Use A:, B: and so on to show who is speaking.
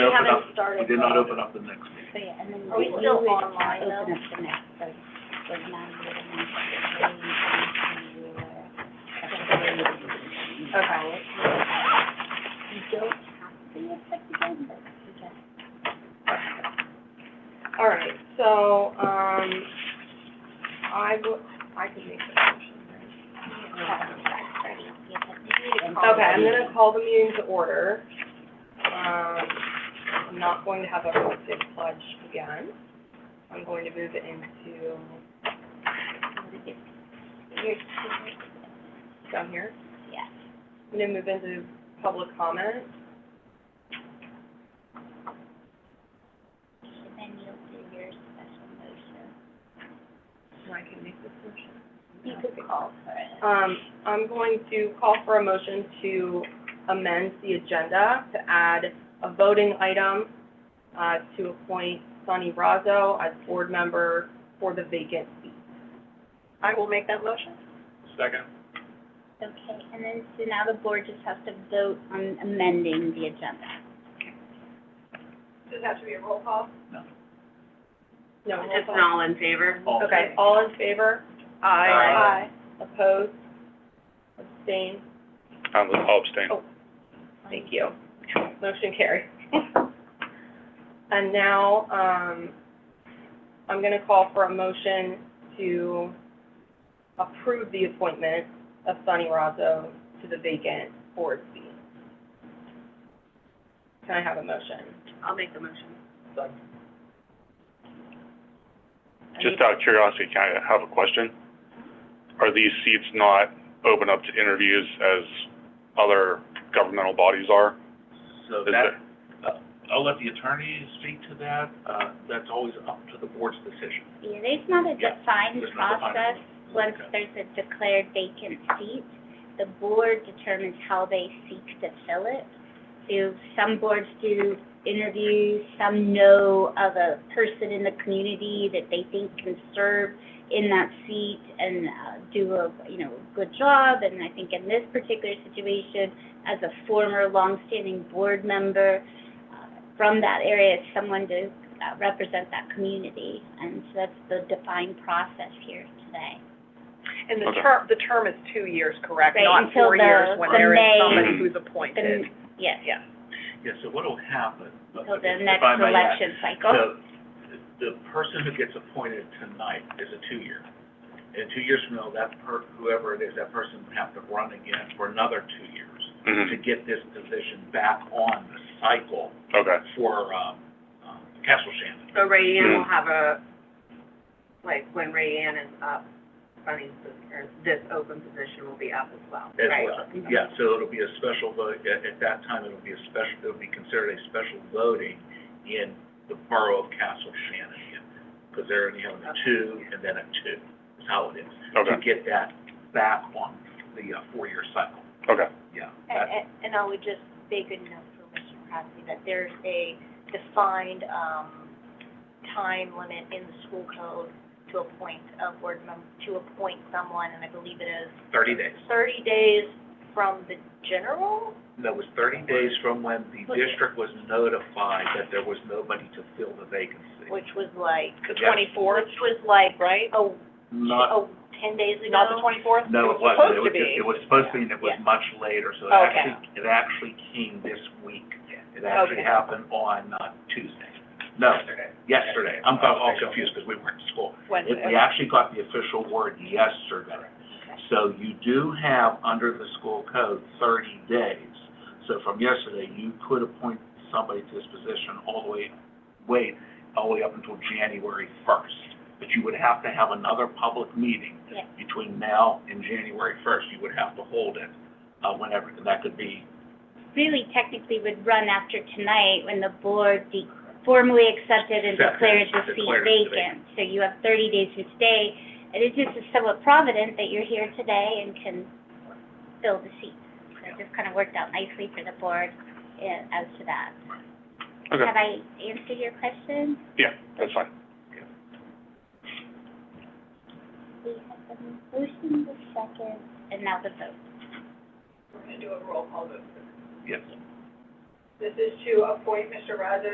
A: We
B: open
A: haven't
B: up-
A: started.
B: We did not open up the next meeting.
C: So, yeah, and then
A: Are we
C: we
A: still
C: would
A: online, though?
C: Open up the next, so, so nine would have been the same, and we were, uh,
A: Okay.
C: You don't have to accept the game, but you just
A: All right, so, um, I will, I can make the motion.
C: have it by Friday. You have to do it.
A: Okay, I'm gonna call the meeting to order. Um, I'm not going to have everyone say the pledge again. I'm going to move it into, down here.
C: Yeah.
A: I'm gonna move into public comment.
C: And then you'll do your special motion.
A: And I can make this motion.
C: You could call for it.
A: Um, I'm going to call for a motion to amend the agenda to add a voting item, uh, to appoint Sonny Razzo as board member for the vacant seat. I will make that motion.
B: Second?
C: Okay, and then, so now the board just has to vote on amending the agenda.
A: Does it have to be a roll call?
B: No.
A: No, roll
D: Just an
A: call.
D: all in favor?
B: All in
A: Okay, all in favor?
B: Aye.
A: Opposed? Abstain?
E: I'll I'll abstain.
A: Oh, Thank you. Motion carried. And now, um, I'm gonna call for a motion to approve the appointment of Sunny Razzo to the vacant board seat. Can I have a motion?
D: I'll make the motion.
E: Just out of curiosity, can I have a question? Are these seats not open up to interviews as other governmental bodies are?
B: So
E: Is
B: that, uh, I'll let the attorney speak to that. Uh, that's always up to the board's decision.
C: Yeah, there's not a
B: Yeah,
C: defined
B: there's not a defined-
C: process. Once
B: Okay.
C: there's a declared vacant seat, the board determines how they seek to fill it. So some boards do interviews, some know of a person in the community that they think can serve in that seat and uh, do a, you know, good job. And I think in this particular situation, as a former longstanding board member uh, from that area, it's someone to uh, represent that community, and so that's the defined process here today.
F: And the
E: Okay.
F: term, the term is two years, correct?
C: Right,
F: Not
C: until
F: four
C: the-
F: years when
C: the
F: there is
C: May-
F: somebody who's appointed.
C: The- Yes,
F: Yeah.
B: Yeah, so what'll happen? but
C: till the
B: if- if
C: next
B: I may add,
C: election cycle.
B: So, the person who gets appointed tonight is a two-year. And two years from now, that per, whoever it is, that person would have to run again for another two years to
E: Mhm.
B: get this position back on the cycle
E: Okay,
B: for, um, um, Castle Shannon.
D: So Ray
E: Hmm.
D: Ann
B: Mm.
D: will have a, like, when Ray Ann is up, Bunny's, or this open position will be up as well,
B: As
D: right?
B: well, yeah, so it'll be a special vote, at, at that time, it'll be a special, it'll be considered a special voting in the borough of Castle Shannon, because they're only having a two and then a two, is how it is. To
E: okay,
B: get that back on the uh, four-year cycle,
E: okay.
B: yeah.
A: And,
B: That-
A: and, and I would just say good enough for Mr. Crosby, that there's a defined, um, time limit in the school code to appoint a board member, to appoint someone, and I believe it is
B: Thirty days,
A: thirty days from the general?
B: that was thirty days from when the district was notified that there was nobody to fill the vacancy.
A: Which was like.
B: The 24th?
A: Which was like, right? Oh,
B: Not,
A: oh, ten days ago?
F: Not the twenty-fourth?
B: no, it wasn't, it was, just- it was supposed to be, and it was
A: Yeah.
B: much later, so it
A: Okay.
B: actually, it actually came this week. It
A: Okay.
B: actually happened on, uh, Tuesday, no, yesterday, I'm all confused, because we weren't in school.
A: Wednesday.
B: It- We actually got the official word yesterday. So you do have, under the school code, thirty days. So from yesterday, you could appoint somebody to this position all the way, wait, all the way up until January first. But you would have to have another public meeting
C: Yeah.
B: between now and January first. You would have to hold it, uh, whenever, and that could be,
C: Really technically would run after tonight when the board de- formally accepted and
B: Accepted,
C: declared the seat
B: declared it
C: vacant. So you have thirty days from today, and it just is somewhat provident that you're here today and can fill the seat. So it just kind of worked out nicely for the board, eh, as to that.
E: Okay.
C: Have I answered your question?
E: Yeah, that's fine.
C: We have the motion, the second, and now the vote.
B: yes.
G: This is to appoint Mr. Raza